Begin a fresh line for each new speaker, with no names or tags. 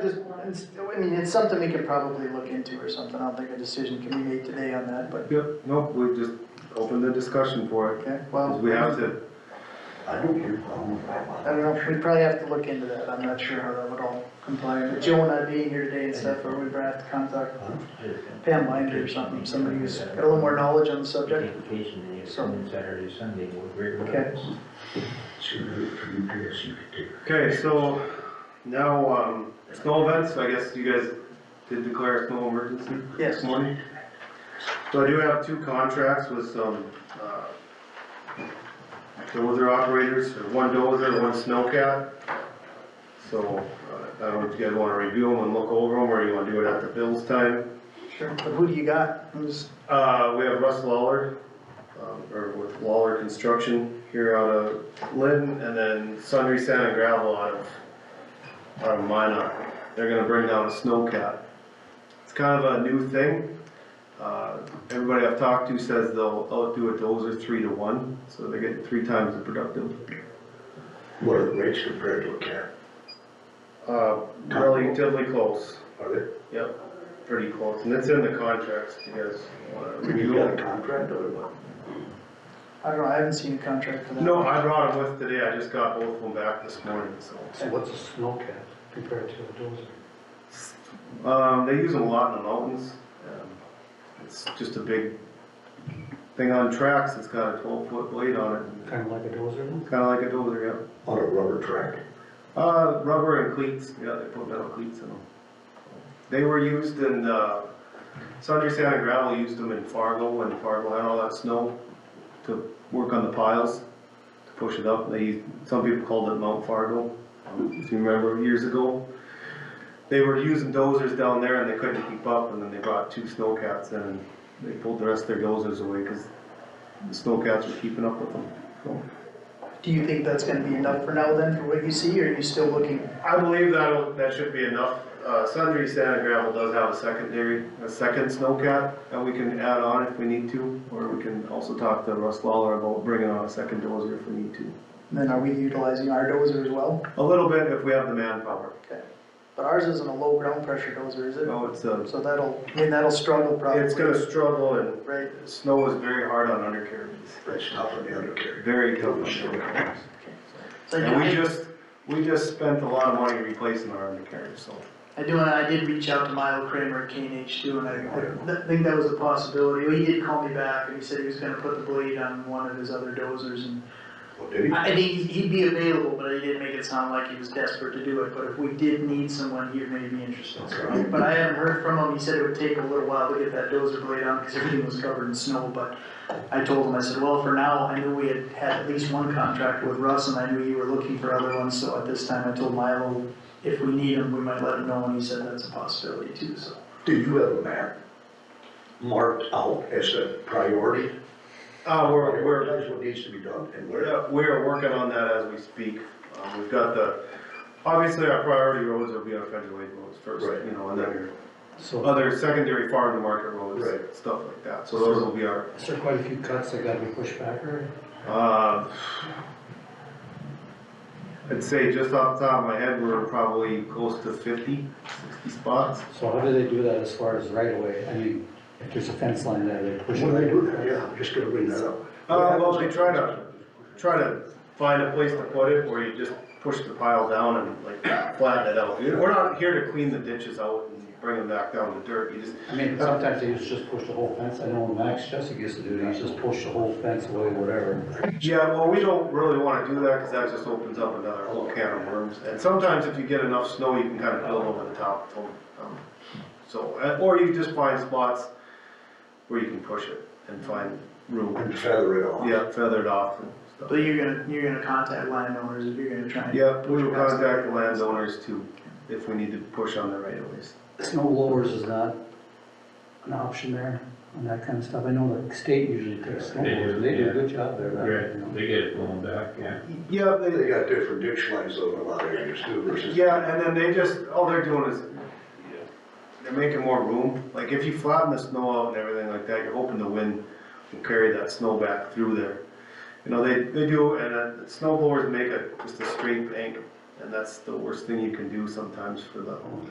just, it's, I mean, it's something we could probably look into or something, I don't think a decision can be made today on that, but,
Yep, nope, we just opened the discussion for it,
okay,
'cause
well.
we have to.
I don't hear from them.
I don't know, we'd probably have to look into that, I'm not sure how that would all comply, but Joe and I being here today and stuff, or we'd have to contact Pam Binder or something, somebody who's got a little more knowledge on the subject.
Vacation day, Sunday, Saturday, Sunday, with great
Okay.
results.
Sooner for you, yes, you could do.
Okay, so now, um, snow events, I guess you guys did declare a snow emergency this
Yes,
morning. So I do have two contracts with some, uh, dozer operators, one dozer, one snowcat. So, uh, I don't know if you guys wanna review them and look over them, or you wanna do it after Bill's time.
sure, but who do you got? Who's,
Uh, we have Russ Lawler, um, or with Lawler Construction here out of Lynn, and then Sundry Sand and Gravel out of, out of Minot. They're gonna bring down a snowcat. It's kind of a new thing. Uh, everybody I've talked to says they'll outdo a dozer three to one, so they get three times the productive.
What are the rates compared to a cat?
Uh, relatively close,
Are they?
yep, pretty close, and it's in the contracts, if you guys wanna
Have
review
you
it.
got a contract or what?
I don't know, I haven't seen a contract for that.
No, I brought them with today, I just got both of them back this morning, so.
So what's a snow cat compared to a dozer?
Um, they use them a lot in the mountains. Um, It's just a big thing on tracks, it's got a twelve foot blade on it,
Kind of like a dozer? then?
kinda like a dozer,
On a rubber track?
yeah. Uh, rubber and cleats, yeah, they put metal cleats in them. They were used in, uh, Sundry Sand and Gravel used them in Fargo, when Fargo had all that snow, to work on the piles, to push it up, they, some people called it Mount Fargo, if you remember years ago. They were using dozers down there and they couldn't keep up, and then they brought two snowcats in, and they pulled the rest of their dozers away, cause the snowcats were keeping up with them. So,
Do you think that's gonna be enough for now then, for what you see, or are you still looking?
I believe that'll, that should be enough, uh, Sundry Sand and Gravel does have a secondary, a second snowcat that we can add on if we need to, or we can also talk to Russ Lawler about bringing on a second dozer if we need to.
Then are we utilizing our dozer as well?
A little bit if we have the manpower,
But ours isn't a low ground pressure dozer, is it?
so it's, uh,
So that'll, I mean, that'll struggle probably.
it's gonna struggle and
Right,
Snow is very hard on undercarriages,
That's not for the undercarriage.
very tough on undercarriages.
so
And
I
we
did,
just, we just spent a lot of money replacing our undercarriage, so.
I do, and I did reach out to Milo Kramer at K and H too, and I, I think that was a possibility, he did call me back, and he said he was gonna put the blade on one of his other dozers, and
Well, did he?
I think he'd- he'd be available, but he didn't make it sound like he was desperate to do it, but if we did need someone, he may be interested.
Okay.
But I haven't heard from him, he said it would take a little while to get that dozer blade on, cause everything was covered in snow, but I told him, I said, well, for now, I knew we had had at least one contract with Russ, and I knew you were looking for other ones, so at this time, I told Milo, if we need him, we might let him know, and he said that's a possibility too, so.
Do you have a map marked out as a priority?
Uh, we're, we're,
Prioritize what needs to be done and where.
we're, we're working on that as we speak. Um, we've got the, obviously our priority roads will be our federal aid roads first,
Right.
you know, and then your
So, uh,
other secondary farm to market
Right.
roads, stuff like that, so those will be our,
is there quite a few cuts that gotta be pushed back or?
uh, I'd say just off the top of my head, we're probably close to 50, 60 spots.
So how do they do that as far as right away? I mean, if there's a fence line there, they push it.
When I do that, yeah, I'm just gonna bring that up.
Uh, well, they try to, try to find a place to put it where you just push the pile down and like flatten it out. We're not here to clean the ditches out and bring them back down to dirt, you just,
I mean, sometimes they used to just push the whole fence. I know Max Jessup used to do that, he just pushed the whole fence away, whatever.
yeah, well, we don't really wanna do that, cause that just opens up another whole can of worms. And sometimes if you get enough snow, you can kinda build over the top, so, um, so, uh, or you just find spots where you can push it and find room.
And feather it off.
Yeah, feathered off and stuff.
But you're gonna, you're gonna contact landowners if you're gonna try and.
Yeah, we will contact the landowners too, if we need to push on the right of ways.
Snow blowers is not an option there and that kind of stuff. I know the state usually takes snow
They do,
blowers, and they do
yeah.
a good job there. about it, you know.
They get it going back, yeah.
Yeah, they,
They got different ditch lines though in a lot of areas too versus.
yeah, and then they just, all they're doing is, they're making more room, like if you flatten the snow out and everything like that, you're hoping the wind will carry that snow back through there. You know, they, they do, and uh, the snow blowers make a, just a straight bank, and that's the worst thing you can do sometimes for the